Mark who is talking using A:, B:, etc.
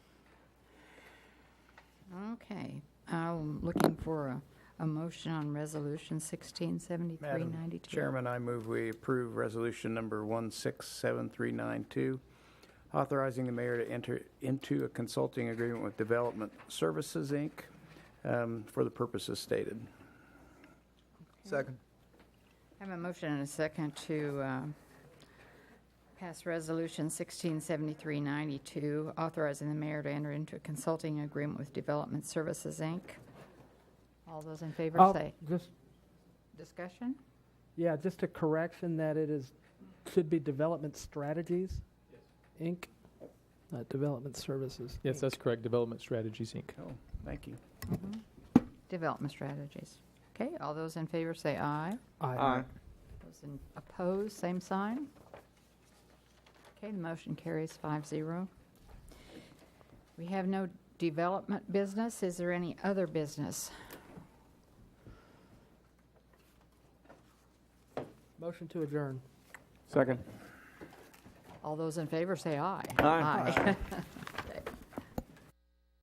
A: Okay, I'm looking for a, a motion on Resolution 167392.
B: Madam Chairman, I move we approve resolution number 167392, authorizing the mayor to enter into a consulting agreement with Development Services, Inc., um, for the purposes stated.
C: Second.
A: I have a motion and a second to uh, pass Resolution 167392, authorizing the mayor to enter into a consulting agreement with Development Services, Inc. All those in favor
D: Oh,
A: say,
D: Just,
A: discussion?
D: yeah, just a correction that it is, should be Development Strategies, Inc., not Development Services.
E: Yes, that's correct. Development Strategies, Inc.
B: Oh, thank you.
A: Development strategies. Okay, all those in favor say aye.
D: Aye.
A: Those in- opposed, same sign. Okay, the motion carries 5-0. We have no development business. Is there any other business?
D: Motion to adjourn.
C: Second.
A: All those in favor say aye.
C: Aye.